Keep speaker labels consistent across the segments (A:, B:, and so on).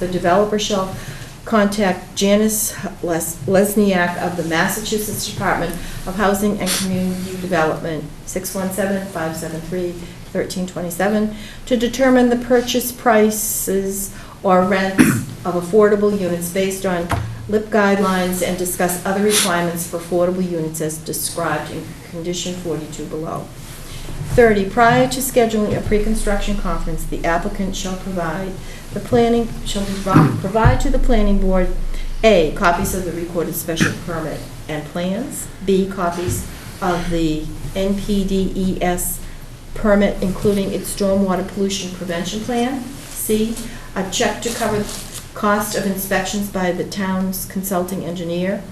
A: The developer shall contact Janice Les- Lesniak of the Massachusetts Department of Housing and Community Development, 617-573-1327, to determine the purchase prices or rents of affordable units based on LIP guidelines and discuss other requirements for affordable units as described in condition 42 below. 30, prior to scheduling a pre-construction conference, the applicant shall provide the planning, shall provi- provide to the planning board, A, copies of the recorded special permit and plans, B, copies of the NPDES E permit, including its stormwater pollution prevention plan, C, a check to cover cost of inspections by the town's consulting engineer,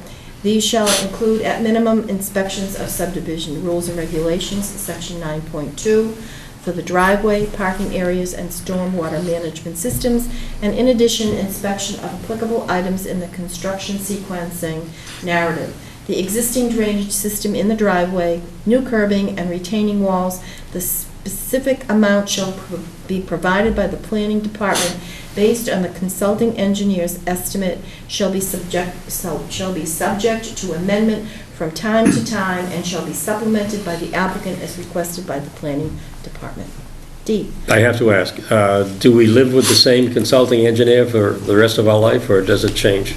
A: these shall include at minimum inspections of subdivision rules and regulations, section 9.2, for the driveway, parking areas, and stormwater management systems, and in addition, inspection of applicable items in the construction sequencing narrative. The existing drainage system in the driveway, new curbing and retaining walls, the specific amount shall pro- be provided by the planning department based on the consulting engineer's estimate shall be subject, so- shall be subject to amendment from time to time and shall be supplemented by the applicant as requested by the planning department. D,
B: I have to ask, uh, do we live with the same consulting engineer for the rest of our life, or does it change?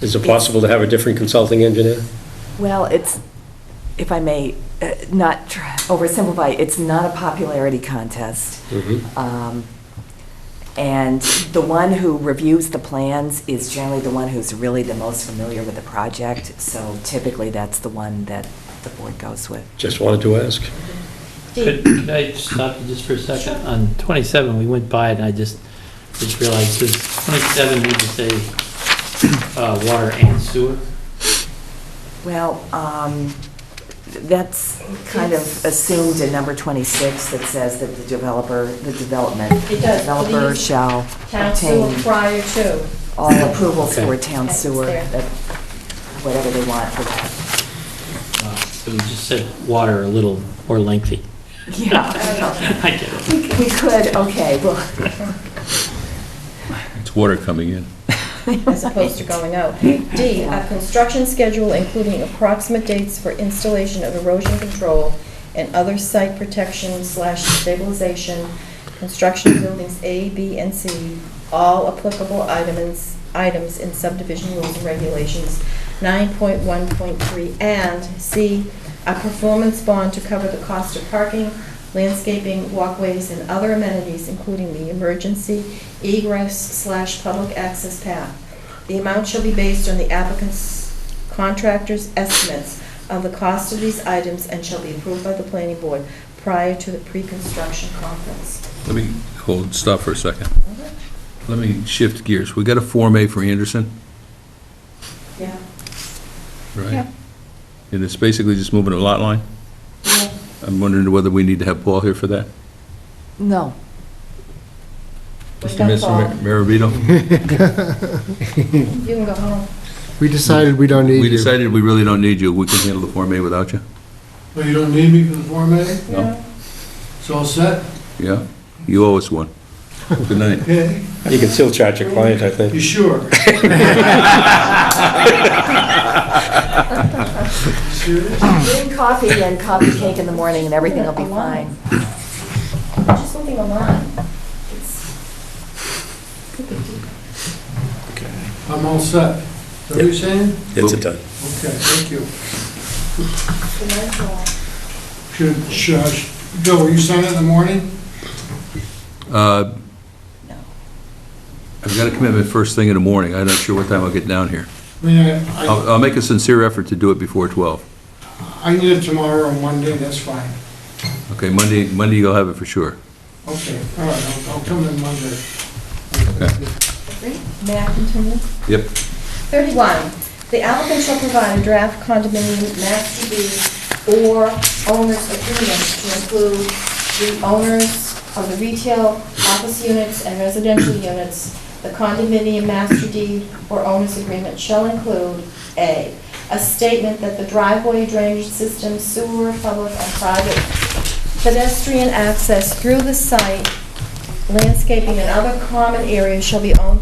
B: Is it possible to have a different consulting engineer?
C: Well, it's, if I may, uh, not tr- oversimplify, it's not a popularity contest. Um, And the one who reviews the plans is generally the one who's really the most familiar with the project, so typically that's the one that the board goes with.
B: Just wanted to ask.
A: D,
D: Could could I stop you just for a second? On 27, we went by it, and I just, just realized, does 27 need to say uh, water and sewer?
C: Well, um, that's kind of assumed in number 26 that says that the developer, the development,
A: It does.
C: developer shall
A: town sewer
C: obtain
A: prior to.
C: all approvals for
D: Okay.
C: town
A: That's
C: sewer,
A: there.
C: that- whatever they want for that.
D: Uh, So we just said water a little more lengthy.
C: Yeah,
D: I get it.
C: we we could, okay, well.
E: It's water coming in.
A: as opposed to going out. D, a construction schedule including approximate dates for installation of erosion control and other site protection slash stabilization, construction of buildings A, B, and C, all applicable items, items in subdivision rules and regulations, 9.1.3, and C, a performance bond to cover the cost of parking, landscaping, walkways, and other amenities, including the emergency egress slash public access path. The amount shall be based on the applicant's contractor's estimates of the cost of these items and shall be approved by the planning board prior to the pre-construction conference.
E: Let me, hold, stop for a second. Let me shift gears. We got a Form A for Anderson,
A: Yeah.
E: right?
A: Yeah.
E: And it's basically just moving a lot line? I'm wondering whether we need to have Paul here for that?
C: No.
A: We've
E: Mr.
A: got
E: Mr.
A: Paul.
E: Maribito?
A: You can go home.
F: We decided we don't need you.
E: We decided we really don't need you. We can handle the Form A without you.
G: Well, you don't need me for the Form A?
E: No.
A: Yeah.
G: It's all set?
E: Yeah? You owe us one. Good night.
G: Okay,
B: You can still charge your client, I
G: you
B: think.
G: sure? Serious?
C: Getting coffee and coffee cake in the morning and everything will be fine.
A: Just leave him alone.
G: I'm all set. Is that what you're saying?
B: It's a done.
G: Okay, thank you. Should, should, I- Bill, will you sign it in the morning?
E: Uh, I've got a commitment first thing in the morning. I'm not sure what time I'll get down here.
G: I mean, I, I-
E: I'll I'll make a sincere effort to do it before 12.
G: I need it tomorrow or Monday, that's fine.
E: Okay, Monday, Monday you'll have it for sure.
G: Okay, all right, I'll- I'll come in Monday.
E: Okay.
A: May I continue?
E: Yep.
A: 31, the applicant shall provide a draft condominium master deed or owner's agreement to include the owners of the retail, office units, and residential units. The condominium master deed or owner's agreement shall include, A, a statement that the driveway drainage system, sewer, public, and private pedestrian access through the site, landscaping, and other common areas shall be owned by